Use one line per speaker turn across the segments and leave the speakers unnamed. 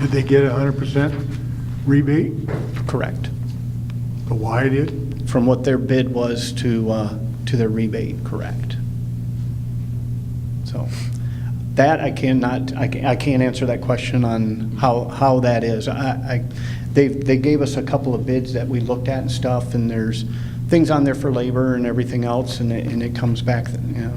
Did they get a hundred percent rebate
Correct.
for why it is?
From what their bid was to, uh, to their rebate, correct. So that I cannot, I ca- I can't answer that question on how, how that is. I, I- they, they gave us a couple of bids that we looked at and stuff, and there's things on there for labor and everything else, and it, and it comes back, you know.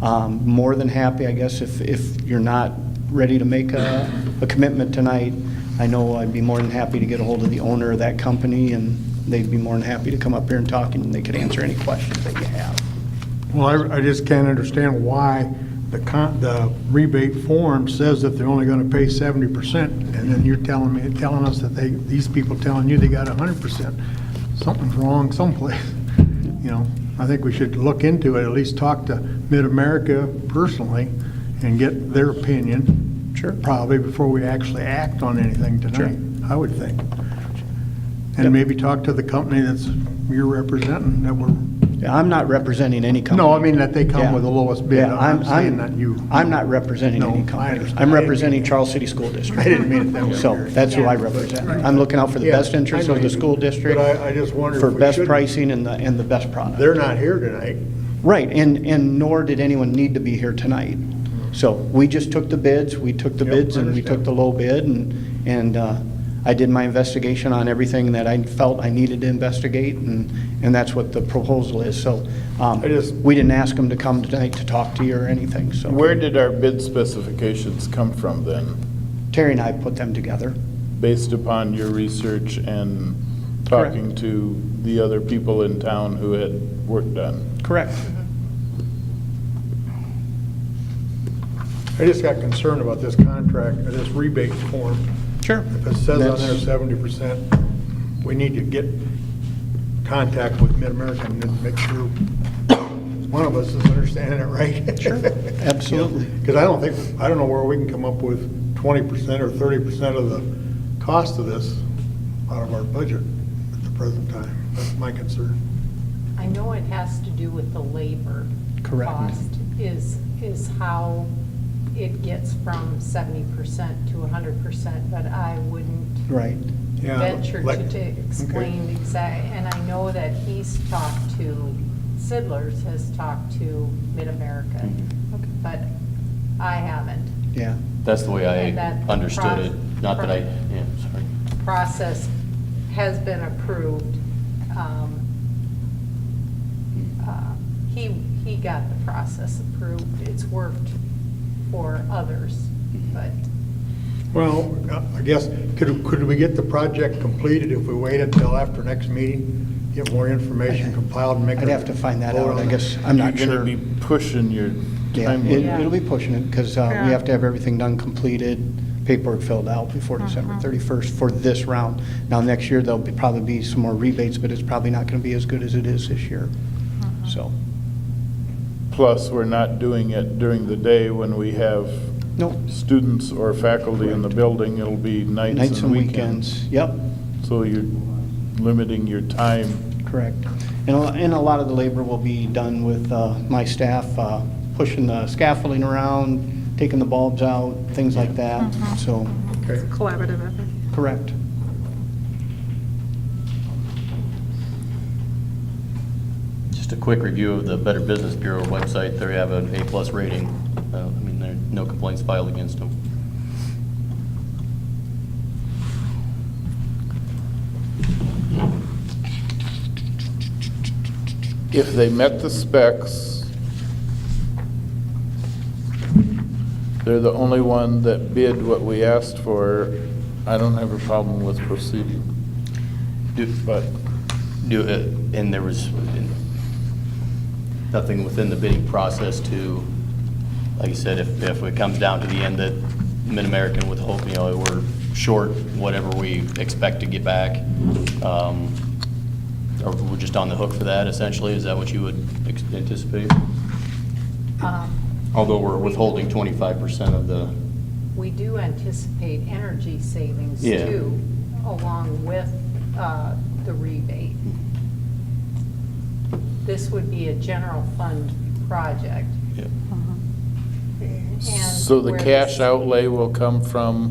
Um, More than happy, I guess, if, if you're not ready to make a, a commitment tonight, I know I'd be more than happy to get a hold of the owner of that company, and they'd be more than happy to come up here and talk, and they could answer any questions that you have.
Well, I, I just can't understand why the con, the rebate form says that they're only gonna pay seventy percent, and then you're telling me, telling us that they, these people telling you they got a hundred percent. Something's wrong someplace, you know? I think we should look into it, at least talk to Mid-America personally and get their opinion.
Sure.
Probably before we actually act on anything tonight, I would think. And maybe talk to the company that's, you're representing, that we're
Yeah, I'm not representing any company.
No, I mean that they come
Yeah.
with the lowest bid.
Yeah,
I'm saying that you.
I'm not representing
No,
any
I
company.
understand.
I'm
I didn't
representing
mean-
Charles City School District.
I didn't mean it that way.
So that's who I represent. I'm looking out for the
Yeah,
best interest
I know
of the
you do.
school district.
But I- I just wondered
For
if we
best
shouldn't-
pricing and the, and the best product.
They're not here tonight.
Right, and, and nor did anyone need to be here tonight. So we just took the bids, we took the
Yep,
bids and we took
understand.
the low bid and, and uh, I did my investigation on everything that I felt I needed to investigate and, and that's what the proposal is. So um,
I just-
we didn't ask them to come tonight to talk to you or anything, so.
Where did our bid specifications come from then,
Terry and I put them together.
based upon your research and
Correct.
talking to the other people in town who had work done?
Correct.
I just got concerned about this contract, or this rebate form.
Sure.
If it says on there
That's-
seventy percent, we need to get contact with Mid-American and make sure one of us is understanding it right.
Sure, absolutely.
Because I don't think, I don't know where we can come up with twenty percent or thirty percent of the cost of this out of our budget at the present time. That's my concern.
I know it has to do with the labor.
Correct.
Cost is, is how it gets from seventy percent to hundred percent, but I wouldn't
Right.
Yeah,
venture to
like-
to explain exactly. And I know that he's talked to, Sidlers has talked to Mid-America, but I haven't.
Yeah.
That's the way I
And that
understood it,
proc-
not that I,
proc-
yeah, sorry.
process has been approved. Um, uh, He, he got the process approved. It's worked for others,
Mm-hmm.
but
Well, I guess, could, could we get the project completed if we waited until after next meeting? Get more information compiled and make.
I'd
a
have to find that
vote
out,
on
I
it?
guess. I'm not sure.
You're gonna be pushing your
Yeah, it-
timeline.
Yeah.
it'll be pushing it, because we have to have everything done, completed, paperwork filled out before
Uh-huh.
December 31st for this round. Now, next year, there'll be- probably be some more rebates, but it's probably not going to be as good as it is this year,
Uh-huh.
so.
Plus, we're not doing it during the day when we have
Nope.
students or faculty in the
Correct.
building. It'll be nights and weekends.
Yep,
So you're limiting your time
correct. And a lo- and a lot of the labor will be done with uh, my staff, uh, pushing the scaffolding around, taking the bulbs out, things like that, so,
Okay.
Uh-huh. collaborative effort.
correct.
Just a quick review of the Better Business Bureau website, they have an A-plus rating. Uh, I mean, there are no complaints filed against them.
if they met the specs, they're the only one that bid what we asked for, I don't have a problem with proceeding. But
Do, uh, and there was nothing within the bidding process to, like you said, if, if it comes down to the end that Mid-American with Hope, you know, we're short whatever we expect to get back, um, or we're just on the hook for that essentially, is that what you would ex- anticipate?
um,
Although we're withholding twenty-five percent of the,
we do anticipate energy savings
Yeah.
too, along with uh, the rebate.
Mm-hmm.
This would be a general fund project.
yeah.
and
So the
where
cash
this-
outlay will come from